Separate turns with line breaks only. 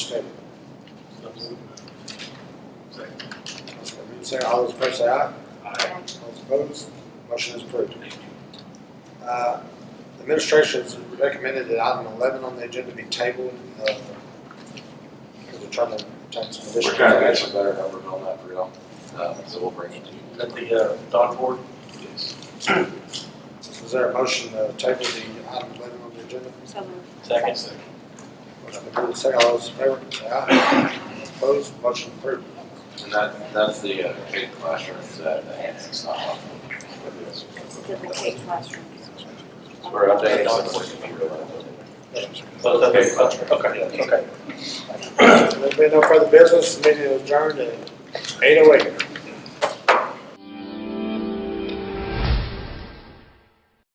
second, all those in favor say aye.
Aye.
All those opposed, motion is approved. Uh, Administration has recommended that item eleven on the agenda be tabled. uh, Because we're trying to obtain some
We're
additional.
trying to get some better numbers on that for y'all, um, so we'll bring it to you.
Is that the, uh, dog board?
Yes.
Is there a motion to table the item eleven on the agenda?
So moved.
Second.
Motion approved, and second, all those in favor say aye. All those opposed, motion approved.
And that, that's the, uh, big classroom, it's, uh, the Hanson style.
It's different K classrooms.
So We're updating
Dog
on
board.
the.
Okay, okay, okay.
There being no further business, meeting is adjourned at eight oh eight.